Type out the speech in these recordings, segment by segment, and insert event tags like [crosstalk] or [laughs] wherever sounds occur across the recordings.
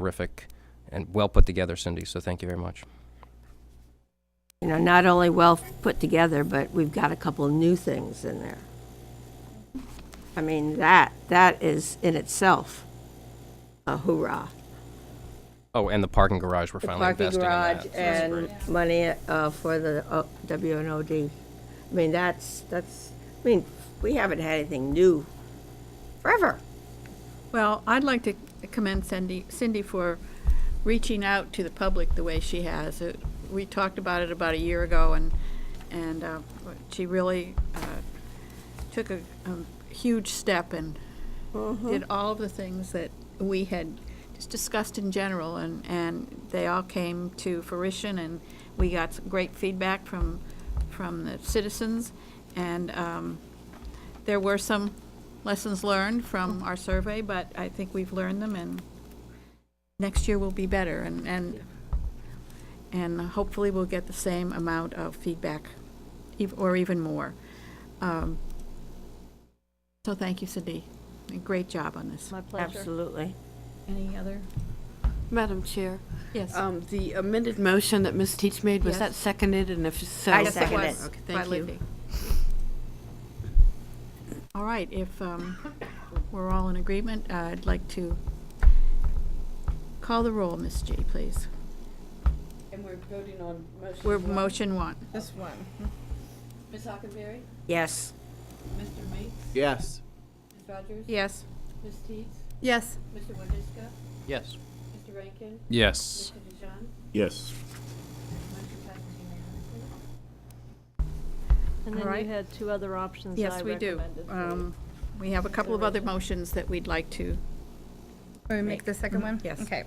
terrific and well put together, Cindy, so thank you very much. you know, not only well put together, but we've got a couple of new things in there. I mean, that, that is in itself a hoorah. Oh, and the parking garage, we're The finally parking investing in that. garage so that's and great. money uh, for the uh, WNOD. I mean, that's, that's, I mean, we haven't had anything new forever. Well, I'd like to commend Cindy, Cindy for reaching out to the public the way she has. It- We talked about it about a year ago, and, and uh, she really uh, took a a huge step and did all of the things that we had just discussed in general, and, and they all came to fruition, and we got some great feedback from, from the citizens, and um, there were some lessons learned from our survey, but I think we've learned them, and next year will be better, and, and, and hopefully we'll get the same amount of feedback, ev- or even more. Um, So thank you, Cindy. Great job on this. My pleasure. Absolutely. Any other? Madam Chair, Yes. um, the amended motion that Ms. Teach made, was that Yes. seconded, and if so? I Yes, it second was, it. Okay, by thank you. Libby. All right, if um, we're all in agreement, uh, I'd like to call the roll, Ms. G, please. And we're voting on motion. We're one? motion one. This one. Ms. Hockenberry? Yes. Mr. Meeks? Yes. Ms. Rogers? Yes. Ms. Teets? Yes. Mr. Wodisca? Yes. Mr. Rankin? Yes. Mr. Dijon? Yes. Motion passes unanimously. And then you Alright. had two other options Yes, we do. Um, We have a couple of other motions that we'd like to, Let me make the second one? Yes. Okay.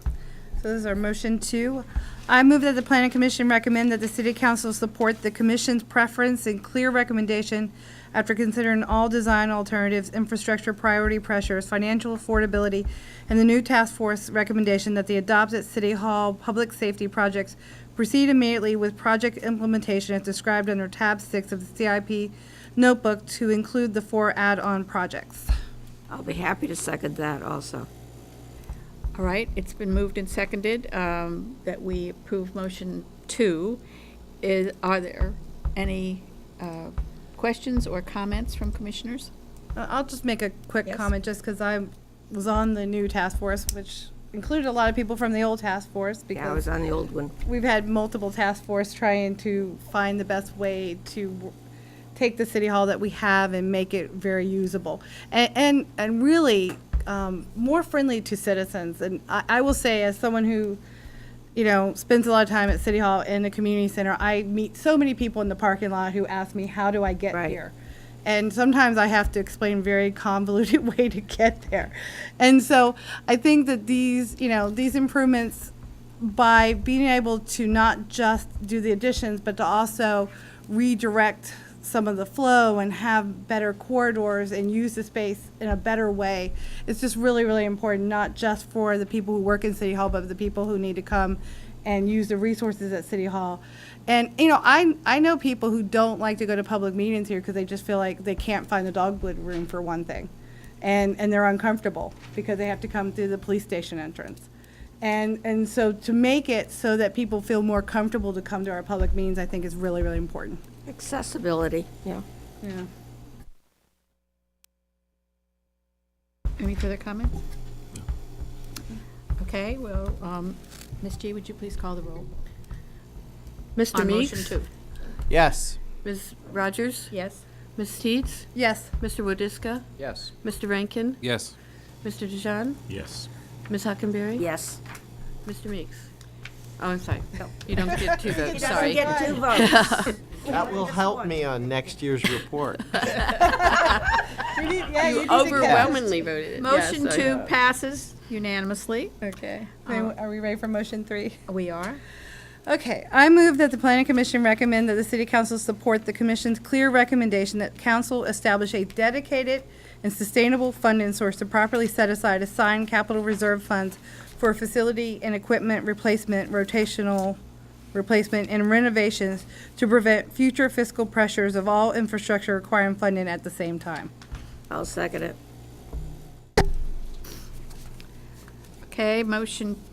So this is our motion two. I move that the planning commission recommend that the city council support the commission's preference and clear recommendation after considering all design alternatives, infrastructure priority pressures, financial affordability, and the new task force recommendation that the adopted city hall public safety projects proceed immediately with project implementation as described under tab six of the CIP notebook to include the four add-on projects. I'll be happy to second that also. all right, it's been moved and seconded um, that we approve motion two. Is, are there any uh, questions or comments from commissioners? Uh, I'll just make a quick Yes. comment, just because I was on the new task force, which included a lot of people from the old task force, Yeah, I was because on the old one. we've had multiple task force trying to find the best way to w- take the city hall that we have and make it very usable. And, and, and really, um, more friendly to citizens. And I, I will say, as someone who, you know, spends a lot of time at City Hall and the community center, I meet so many people in the parking lot who ask me, how do I get Right. here? And sometimes I have to explain very convoluted [laughs] way to get there. And so I think that these, you know, these improvements by being able to not just do the additions, but to also redirect some of the flow and have better corridors and use the space in a better way. It's just really, really important, not just for the people who work in City Hall, but the people who need to come and use the resources at City Hall. And, you know, I, I know people who don't like to go to public meetings here because they just feel like they can't find the dogwood room for one thing. And, and they're uncomfortable because they have to come through the police station entrance. And, and so to make it so that people feel more comfortable to come to our public meetings, I think is really, really important. Accessibility, yeah. Yeah. Any further comments? Okay, well, um, Ms. G, would you please call the roll? Mr. on Meeks? motion two? Yes. Ms. Rogers? Yes. Ms. Teets? Yes. Mr. Wodisca? Yes. Mr. Rankin? Yes. Mr. Dijon? Yes. Ms. Hockenberry? Yes. Mr. Meeks? Oh, I'm sorry. You don't [laughs] get two votes, sorry. Get two votes. That will help me on next year's report. You overwhelmingly voted yes, Motion I two know. passes unanimously. Okay. Are we ready for motion three? We are. Okay, I move that the planning commission recommend that the city council support the commission's clear recommendation that council establish a dedicated and sustainable funding source to properly set aside assigned capital reserve funds for facility and equipment replacement, rotational replacement, and renovations to prevent future fiscal pressures of all infrastructure requiring funding at the same time. I'll second it. Okay, motion